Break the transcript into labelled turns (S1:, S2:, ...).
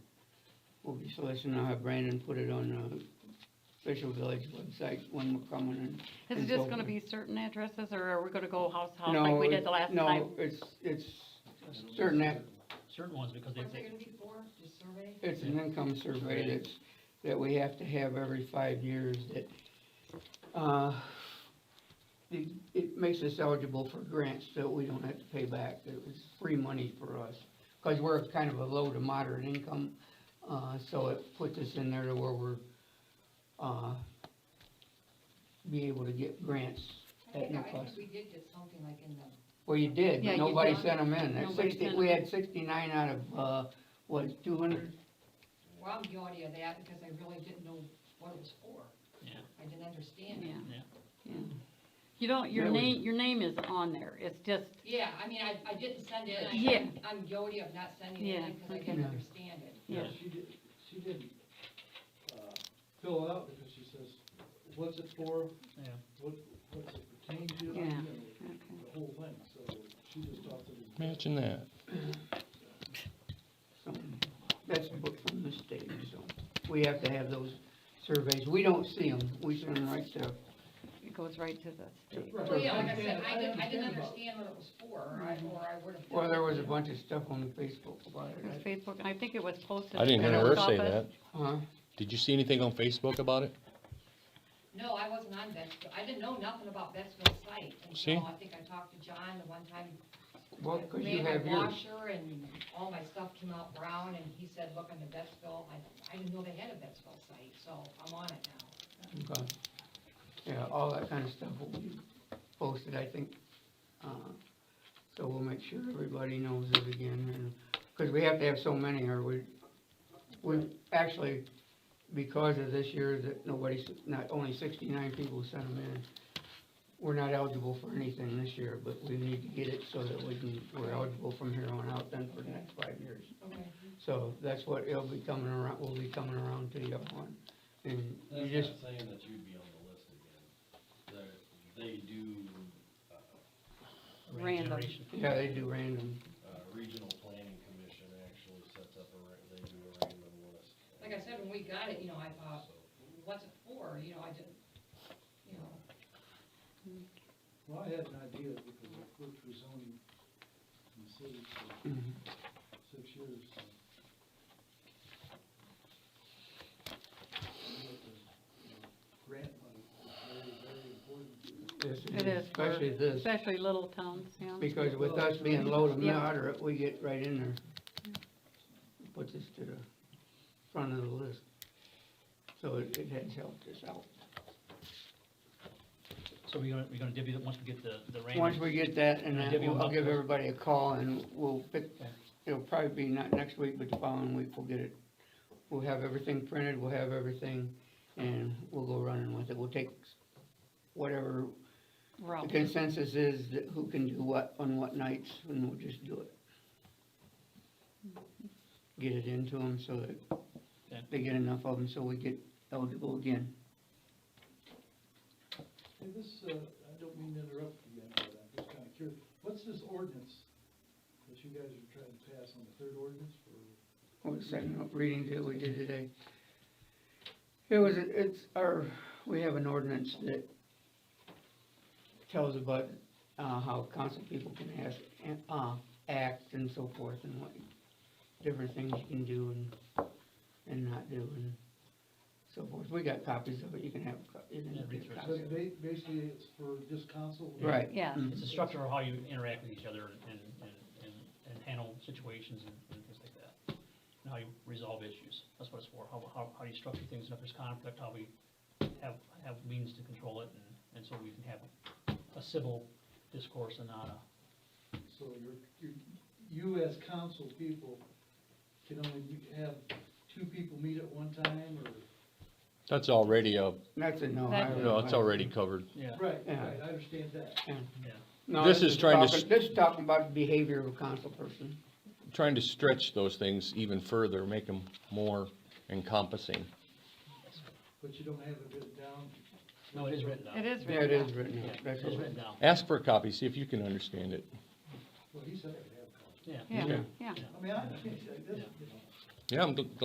S1: So let's now have Brandon put it on the official village website when we're coming in.
S2: Is it
S1: It's
S2: just gonna
S1: open.
S2: be certain addresses, or are we gonna go house, house
S1: No,
S2: like we
S1: it-
S2: did the last time?
S1: No, it's, it's certain, ac-
S3: Certain ones, because they,
S4: What's it gonna be for, just survey?
S1: it's an income survey that's, that we have to have every five years that, uh, it, it makes us eligible for grants that we don't have to pay back, that it was free money for us. Cause we're kind of a low to moderate income, uh, so it puts us in there to where we're, uh, be able to get grants
S4: I
S1: at
S4: think,
S1: no
S4: I
S1: cost.
S4: think we did get something like in the,
S1: Well, you did,
S2: Yeah,
S1: but
S2: you
S1: nobody
S2: did.
S1: sent them in, That
S2: Nobody
S1: sixty,
S2: sent
S1: we
S2: 'em.
S1: had sixty-nine out of, uh, what, two hundred?
S4: well, I'm guilty of that because I really didn't know what it was for.
S3: Yeah.
S4: I didn't understand
S2: Yeah,
S4: it.
S2: yeah.
S3: Yeah.
S2: You don't, your
S1: That was-
S2: name, your name is on there, it's just,
S4: Yeah, I mean, I, I didn't send it, and
S2: Yeah.
S4: I'm- I'm guilty of not sending it
S2: Yeah,
S4: in because I
S2: okay.
S4: didn't
S1: Yeah.
S4: understand it.
S2: yeah,
S5: She did, she didn't, uh, fill it out because she says, what's it for,
S3: yeah,
S5: what, what's it pertain to? you
S2: Yeah.
S5: know,
S2: okay.
S5: The whole thing, so she just thought that it was.
S6: Imagine that.
S1: So, That's booked from the state, so we have to have those surveys. We don't see them, we send them right to,
S2: It goes right to the state.
S5: Right.
S4: Well, yeah, like I said,
S5: understand-
S4: I didn't, I didn't
S5: about it.
S4: understand what it was for, or
S2: Mm-hmm.
S4: I, or I would've.
S1: well, there was a bunch of stuff on the Facebook about
S2: It was
S1: it,
S2: Facebook, and I think it was posted.
S6: I didn't
S2: at
S6: hear
S2: the
S6: her
S2: post
S6: say
S2: office.
S6: that.
S1: huh?
S6: Did you see anything on Facebook about it?
S4: No, I wasn't on Betsville, I didn't know nothing about Betsville site
S6: See?
S4: until I think I talked to John the one time
S1: Well, cause you
S4: made
S1: have
S4: my
S1: yours.
S4: washer and all my stuff came out brown, and he said, look on the Betsville, I, I didn't know they had a Betsville site, so I'm on it now.
S1: Okay. Yeah, all that kind of stuff will be posted, I think. Uh, So we'll make sure everybody knows it again, and, because we have to have so many, or we, we, actually, because of this year that nobody's, not only sixty-nine people sent them in, we're not eligible for anything this year, but we need to get it so that we can, we're eligible from here on out then for the next five years.
S4: Okay.
S1: So that's what it'll be coming around, will be coming around to you on, and you
S7: That's
S1: just
S7: not saying that you'd be on the list again. They're, they do, uh,
S3: rate
S2: Random.
S3: generation.
S1: Yeah, they do random.
S7: uh, regional planning commission actually sets up a, ra- they do a random list.
S4: Like I said, when we got it, you know, I thought, what's it for, you know, I didn't, you know,
S5: Well, I had an idea because I worked for zoning in the city for
S2: Mm-hmm.
S5: six years. so. I know that the, you know, Grant money is very, very
S1: Yes,
S5: important.
S2: It is for-
S1: Especially this,
S2: Especially little towns, yeah.
S1: because with us being low to
S2: Yeah.
S1: moderate, we get right in there. Put this to the front of the list. So it, it has helped us out.
S3: So we're gonna, we're gonna divvy it once we get the, the random.
S1: Once we get that, and
S3: I'll
S1: then
S3: give you
S1: we'll- I'll
S3: a-
S1: give everybody a call and we'll pick,
S3: Okay.
S1: it'll probably be not next week, but the following week we'll get it. We'll have everything printed, we'll have everything, and we'll go running with it. We'll take whatever
S2: Route.
S1: The consensus is that who can do what on what nights, and we'll just do it. Get it into them so that
S3: Okay.
S1: they get enough of them, so we get eligible again.
S5: Hey, this, uh, I don't mean to interrupt you again, but I'm just kinda curious, what's this ordinance that you guys are trying to pass on the third ordinance for?
S1: What was that reading that we did today? It was, it's our, we have an ordinance that tells about, uh, how council people can ask, and, uh, act and so forth, and what different things you can do and, and not do, and so forth. We got copies of it, you can have, a co- you can
S3: Yeah,
S1: have
S3: read through
S1: a
S3: it.
S1: copy.
S5: But ba- basically, it's for just council?
S1: Right.
S2: Yeah.
S1: mhm.
S3: It's a structure of how you interact with each other and, and, and, and handle situations and, and things like that. And how you resolve issues, that's what it's for, how, how, how you structure things, and if there's conflict, how we have, have means to control it, and, and so we can have a civil discourse and not a,
S5: So you're, you, you as council people can only be- have two people meet at one time, or?
S6: That's already a,
S1: That's a no. I
S2: That's-
S1: don't
S6: no,
S1: know.
S6: it's already covered.
S3: yeah,
S5: Right,
S1: Yeah.
S5: right, I understand that.
S3: yeah.
S1: No,
S6: This is trying to
S1: talking-
S6: s-
S1: This is talking about the behavior of a council person.
S6: Trying to stretch those things even further, make them more encompassing.
S5: But you don't have it written down,
S3: No, it is written down.
S2: It is
S1: Yeah, it
S2: written
S1: is
S2: down.
S1: written,
S3: Yeah,
S1: out.
S3: it
S1: that's
S3: is
S1: what-
S3: written down,
S6: Ask for a copy, see if you can understand it.
S5: well, he said I could have,
S3: yeah.
S2: Yeah,
S6: Okay.
S2: yeah.
S5: I mean, I, this, you know.
S6: Yeah, I'm gl-